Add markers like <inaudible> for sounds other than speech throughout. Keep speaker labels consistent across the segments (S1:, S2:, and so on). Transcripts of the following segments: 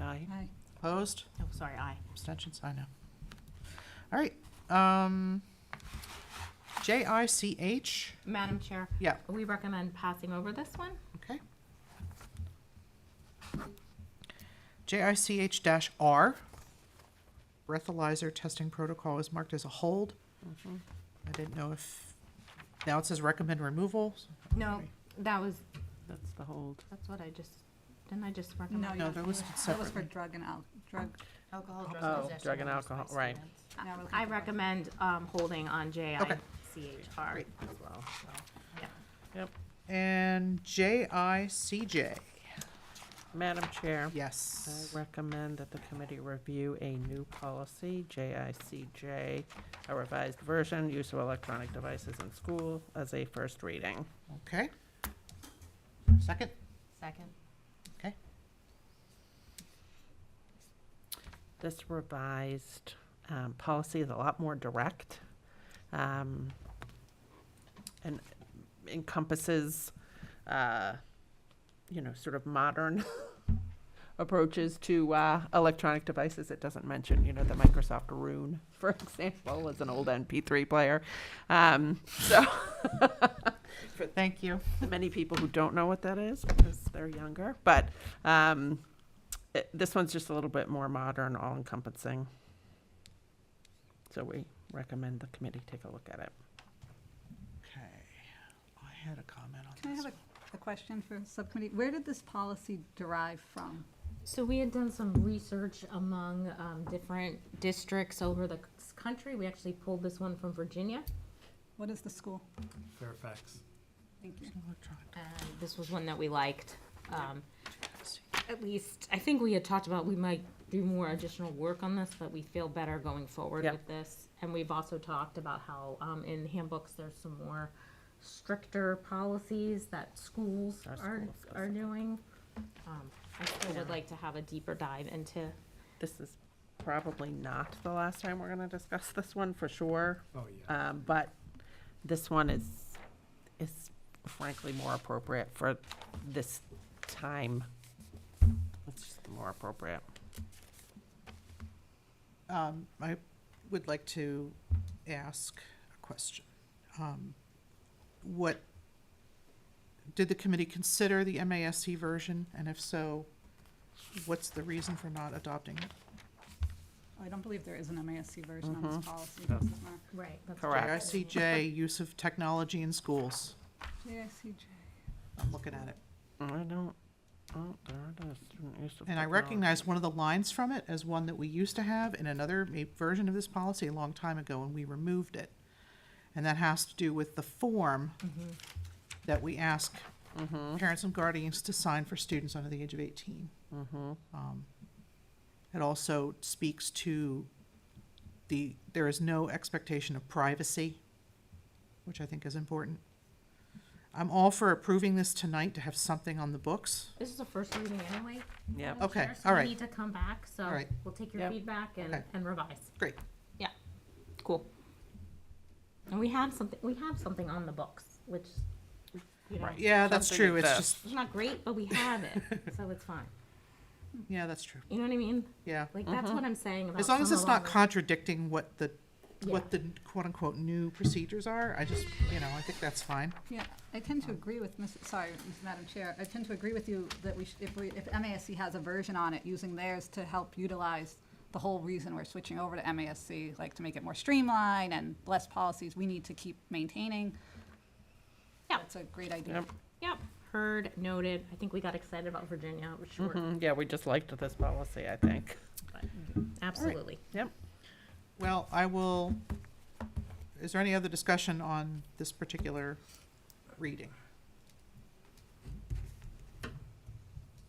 S1: Aye.
S2: Aye.
S1: Opposed?
S3: Oh, sorry, aye.
S1: Abstentions? I know. All right. Um, J I C H.
S3: Madam Chair,
S1: Yeah.
S3: we recommend passing over this one.
S1: Okay. J I C H dash R. Breathalyzer testing protocol is marked as a hold. I didn't know if, now it says recommend removal. so-
S3: No, that was,
S4: That's the hold.
S3: that's what I just, didn't I just
S2: No,
S3: recommend?
S2: you-
S1: they're listed
S2: that was for
S1: separately.
S2: drug and al, drug.
S3: Alcohol,
S4: drugs, Oh, possession, drug and or use by alcohol, right.
S2: now we're looking
S3: Um, I
S2: for-
S3: recommend um, holding on
S1: Okay.
S3: JICHR.
S1: Great.
S4: As well.
S1: And J I C J.
S4: Madam Chair,
S1: Yes.
S4: I recommend that the committee review a new policy, JICJ, a revised version, use of electronic devices in school as a first reading.
S1: Okay. Second?
S3: Second.
S4: This revised um, policy is a lot more direct um, and encompasses, uh, you know, sort of modern <laughs> approaches to uh, electronic devices. It doesn't mention, you know, the Microsoft Rune, <laughs> for example, as an old MP3 player. Um, So
S1: Thank you.
S4: many people who don't know what that is because they're younger, but um, it, this one's just a little bit more modern, all encompassing. So we recommend the committee take a look at it.
S1: Okay. I had a comment on this.
S2: Can I have a, a question for subcommittee? Where did this policy derive from?
S3: So we had done some research among um, different districts over the c- country. We actually pulled this one from Virginia.
S2: What is the school?
S5: Fairfax.
S2: Thank you.
S1: Electronic
S3: and Uh, This was one that we liked. Um,
S1: device.
S3: At least, I think we had talked about we might do more additional work on this, but we feel better going forward
S4: Yep.
S3: with this. And we've also talked about how um, in handbooks, there's some more stricter policies that schools
S4: Our
S3: are,
S4: schools
S3: are
S4: specific.
S3: doing. Um, I still would
S4: Yeah.
S3: like to have a deeper dive into
S4: This is probably not the last time we're going to discuss this one for sure,
S5: Oh, yeah.
S4: um, but this one is is frankly more appropriate for this time. It's just more appropriate.
S1: Um, I would like to ask a question. Um, What, did the committee consider the MASC version? And if so, what's the reason for not adopting it?
S2: Oh, I don't believe there is an MASC version on
S3: Mm-hmm.
S4: Mhm.
S2: this policy. does there, Mark?
S3: Right.
S4: Correct.
S1: JICJ, use of technology in schools.
S2: JICJ.
S1: I'm looking at it.
S4: I don't, oh, there it is. student use of
S1: And I
S4: technology.
S1: recognize one of the lines from it as one that we used to have in another ma- version of this policy a long time ago, and we removed it. And that has to do with the form
S4: Mm-hmm.
S1: that we ask parents and guardians to sign for students under the age of 18.
S4: Mm-hmm.
S1: Um, It also speaks to the, there is no expectation of privacy, which I think is important. I'm all for approving this tonight to have something on the books.
S3: This is the first reading anyway.
S4: Yep.
S3: Madam
S1: Okay,
S3: Chair, so
S1: all
S3: we
S1: right.
S3: Need to come back, so
S1: All right.
S3: we'll take your
S4: Yep.
S3: feedback and,
S1: Okay.
S3: and revise.
S1: Great.
S3: Yeah, cool. And we have something, we have something on the books, which, you know,
S1: Yeah, that's
S4: Something
S1: true. It's just,
S4: exists.
S3: it's not great, but we have it,
S1: <laughs>
S3: so it's fine.
S1: yeah, that's true.
S3: You know what I mean?
S1: Yeah.
S3: Like, that's what I'm saying about
S1: As long as
S3: some
S1: it's
S3: of
S1: not
S3: our-
S1: contradicting what the,
S3: Yeah.
S1: what the quote-unquote new procedures are, I just, you know, I think that's fine.
S2: Yeah, I tend to agree with, Ms. sorry, Ms. Madam Chair, I tend to agree with you that we, should- if we, if MASC has a version on it, using theirs to help utilize the whole reason we're switching over to MASC, like to make it more streamlined and less policies we need to keep maintaining.
S3: Yeah.
S2: That's a great idea.
S4: Yep.
S3: Yep, heard, noted. I think we got excited about Virginia, it was short.
S1: Mm-hmm.
S4: Mhm. Yeah, we just liked this policy, I think.
S3: Absolutely.
S4: Yep.
S1: Well, I will, is there any other discussion on this particular reading? All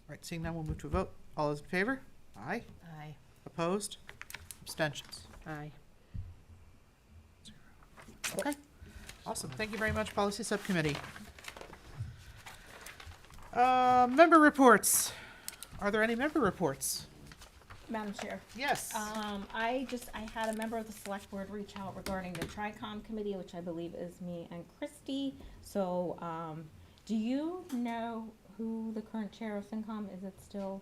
S1: right, seeing none, we'll move to a vote. All those in favor? Aye.
S3: Aye.
S1: Opposed? Abstentions?
S4: Aye.
S1: Okay, awesome. Thank you very much, Policy Subcommittee. Uh, Member reports. Are there any member reports?
S3: Madam Chair.
S1: Yes.
S3: Um, I just, I had a member of the select board reach out regarding the TRICOM committee, which I believe is me and Christy. So, um, do you know who the current chair of FinCom, is it still